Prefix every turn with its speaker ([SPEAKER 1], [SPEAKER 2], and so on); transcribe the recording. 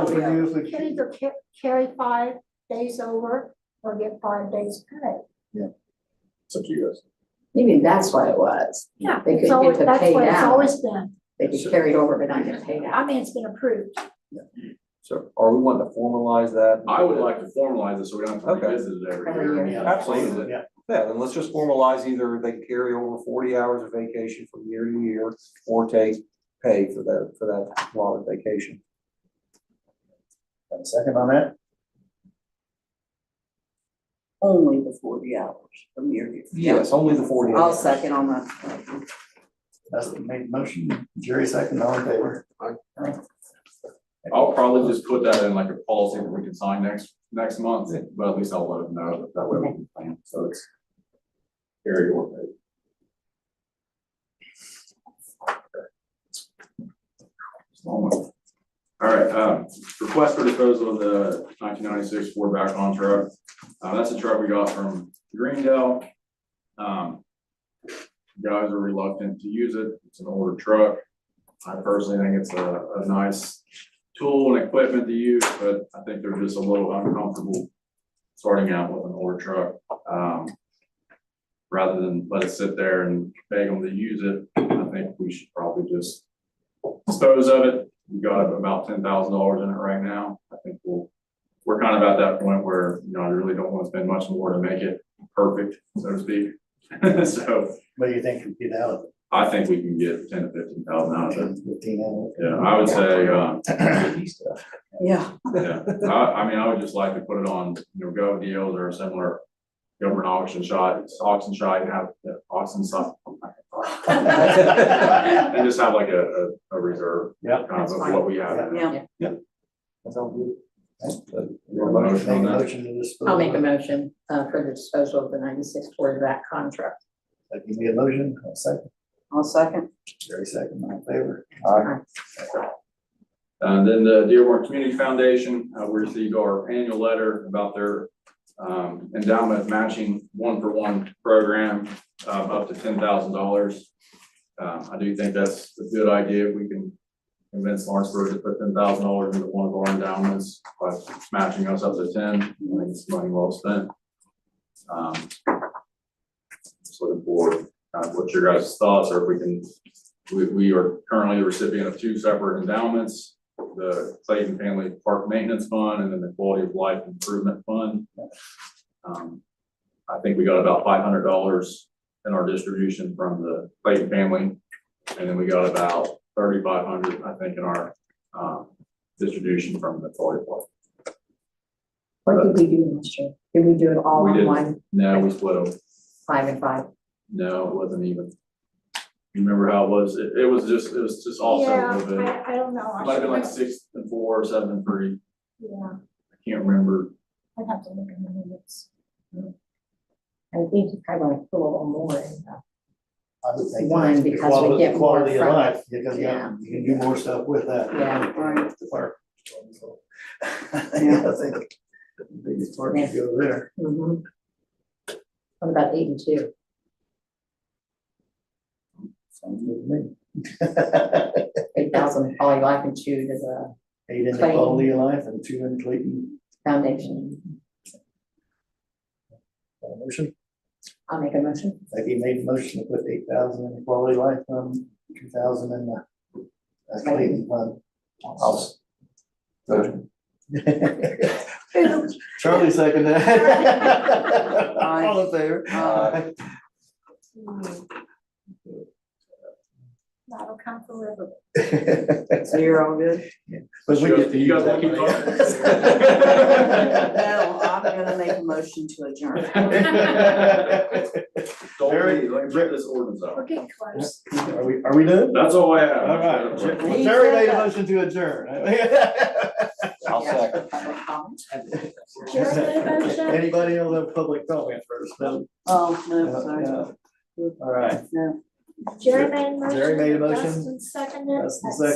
[SPEAKER 1] Because we
[SPEAKER 2] Yeah.
[SPEAKER 1] usually,
[SPEAKER 3] can either ca- carry five days over or get five days pay.
[SPEAKER 4] It's up to you guys.
[SPEAKER 2] Maybe that's what it was.
[SPEAKER 3] Yeah.
[SPEAKER 2] They could
[SPEAKER 3] It's always,
[SPEAKER 2] get the
[SPEAKER 3] that's
[SPEAKER 2] pay
[SPEAKER 3] what it's
[SPEAKER 2] out,
[SPEAKER 3] always been.
[SPEAKER 2] they could carry it over but not get paid
[SPEAKER 3] I
[SPEAKER 2] out.
[SPEAKER 3] mean, it's been approved.
[SPEAKER 5] So are we wanting to formalize that?
[SPEAKER 4] I would like to formalize it so we don't have
[SPEAKER 5] Okay.
[SPEAKER 4] to revisit it every
[SPEAKER 2] Every
[SPEAKER 4] year.
[SPEAKER 2] year.
[SPEAKER 5] Absolutely.
[SPEAKER 1] yeah,
[SPEAKER 5] Yeah, then let's just formalize either they carry over forty hours of vacation from year to year or take pay for that, for that lot of vacation.
[SPEAKER 1] Got a second on that,
[SPEAKER 6] only the forty hours from your.
[SPEAKER 5] Yes, only the forty.
[SPEAKER 6] I'll
[SPEAKER 5] hours.
[SPEAKER 6] second on that.
[SPEAKER 1] that's the main motion, Jerry second, all in favor?
[SPEAKER 4] I'll probably just put that in like a policy that we can sign next, next month, but at least I'll let them know that that way we can plan, so it's. Carry over. All right, um, request for disposal of the nineteen ninety-six Ford backhoe truck. Uh, that's a truck we got from Greendale. Um. Guys are reluctant to use it. It's an older truck. I personally think it's a, a nice tool and equipment to use, but I think they're just a little uncomfortable starting out with an older truck. Um, rather than let it sit there and beg them to use it, I think we should probably just dispose of it. We got about ten thousand dollars in it right now. I think we'll, we're kind of at that point where, you know, I really don't want to spend much more to make it perfect, so to speak. So
[SPEAKER 1] What do you think would get out of it,
[SPEAKER 4] I think we can get ten to fifteen thousand out of it.
[SPEAKER 1] fifteen hours?
[SPEAKER 4] Yeah, I would say, uh,
[SPEAKER 6] Yeah.
[SPEAKER 4] Yeah, I, I mean, I would just like to put it on, you know, Gov deals or a similar government auction shot, auction shot, and have, yeah, auction some. And just have like a, a, a reserve.
[SPEAKER 1] Yeah.
[SPEAKER 4] Kind of
[SPEAKER 2] That's
[SPEAKER 4] of
[SPEAKER 2] fine.
[SPEAKER 4] what we have.
[SPEAKER 6] Yeah.
[SPEAKER 5] That sounds good.
[SPEAKER 4] You want a motion
[SPEAKER 1] Make a
[SPEAKER 4] on that?
[SPEAKER 1] motion to dispose.
[SPEAKER 2] I'll make a motion uh for the disposal of the ninety-six Ford back contract.
[SPEAKER 1] That give me a motion, I'll second,
[SPEAKER 6] I'll second.
[SPEAKER 1] Jerry second, all in favor?
[SPEAKER 4] And Uh, then the Dearborn Community Foundation, uh, we received our annual letter about their um, endowment matching one-for-one program, um, up to ten thousand dollars. Um, I do think that's a good idea. We can convince Lawrenceburg to put ten thousand dollars into one of our endowments by matching us up to ten. I think it's money well spent. Um, Just looking forward, uh, what your guys' thoughts are, if we can we, we are currently the recipient of two separate endowments, the Clayton Family Park Maintenance Fund and then the Quality of Life Improvement Fund. Um, I think we got about five hundred dollars in our distribution from the Clayton family. And then we got about thirty-five hundred, dollars I think, in our, um, distribution from the Quality of Life.
[SPEAKER 2] What did we do last year? Did we do it all
[SPEAKER 4] We
[SPEAKER 2] in
[SPEAKER 4] did.
[SPEAKER 2] one,
[SPEAKER 4] No, we split them.
[SPEAKER 2] five and five?
[SPEAKER 4] No, it wasn't even. You remember how it was? It, it was just, it was just all set a
[SPEAKER 3] Yeah,
[SPEAKER 4] little bit. It
[SPEAKER 3] I, I don't know. I
[SPEAKER 4] Might have been like
[SPEAKER 3] should-
[SPEAKER 4] six and four or seven and three.
[SPEAKER 3] Yeah,
[SPEAKER 4] I can't remember.
[SPEAKER 3] I'd have to look in the minutes.
[SPEAKER 2] I think I want to put a little more in that.
[SPEAKER 1] I would think.
[SPEAKER 2] One,
[SPEAKER 1] that's the
[SPEAKER 2] because we
[SPEAKER 1] quality-
[SPEAKER 2] get more
[SPEAKER 1] Quality of
[SPEAKER 2] from it.
[SPEAKER 1] life, because you
[SPEAKER 2] Yeah.
[SPEAKER 1] you can do more stuff with that.
[SPEAKER 2] Yeah,
[SPEAKER 6] right.
[SPEAKER 1] The park. Yeah, I think the biggest park is over there.
[SPEAKER 2] Mhm. What about eight and two?
[SPEAKER 1] Sounds good to me.
[SPEAKER 2] Eight thousand, all you like and two uh, to the
[SPEAKER 1] Eight in the
[SPEAKER 2] Clayton.
[SPEAKER 1] quality of life and two in Clayton.
[SPEAKER 2] foundation.
[SPEAKER 1] Got a Motion,
[SPEAKER 2] I'll make a motion.
[SPEAKER 1] Becky made a motion to put eight thousand in the quality of life fund, two thousand in the uh, Clayton fund.
[SPEAKER 5] I'll-
[SPEAKER 1] Charlie seconded.
[SPEAKER 6] Aye.
[SPEAKER 1] All in favor?
[SPEAKER 4] Uh,
[SPEAKER 5] Aye.
[SPEAKER 3] That'll come forever.
[SPEAKER 6] So you're all good?
[SPEAKER 1] But we get to
[SPEAKER 4] You guys
[SPEAKER 1] use
[SPEAKER 4] wanna keep
[SPEAKER 1] that
[SPEAKER 6] No, I'm gonna make a motion to adjourn.
[SPEAKER 1] money.
[SPEAKER 4] Don't
[SPEAKER 1] Very-
[SPEAKER 4] leave, let me check this ordinance
[SPEAKER 3] We're
[SPEAKER 4] out.
[SPEAKER 3] getting close.
[SPEAKER 1] Are we, are we done?
[SPEAKER 4] That's all I have.
[SPEAKER 1] All right, Terry
[SPEAKER 6] He said
[SPEAKER 1] made a
[SPEAKER 6] that.
[SPEAKER 1] motion to adjourn.
[SPEAKER 5] I'll
[SPEAKER 6] Yeah,
[SPEAKER 5] second.
[SPEAKER 3] Jerry made
[SPEAKER 6] for public comment.
[SPEAKER 3] a motion?
[SPEAKER 1] Anybody else have public comment first? No?
[SPEAKER 6] Oh, no, sorry.
[SPEAKER 1] No. All right.
[SPEAKER 6] No.
[SPEAKER 3] Jerry made a motion.
[SPEAKER 1] Jerry made a motion.
[SPEAKER 3] Dustin seconded.
[SPEAKER 1] Dustin seconded.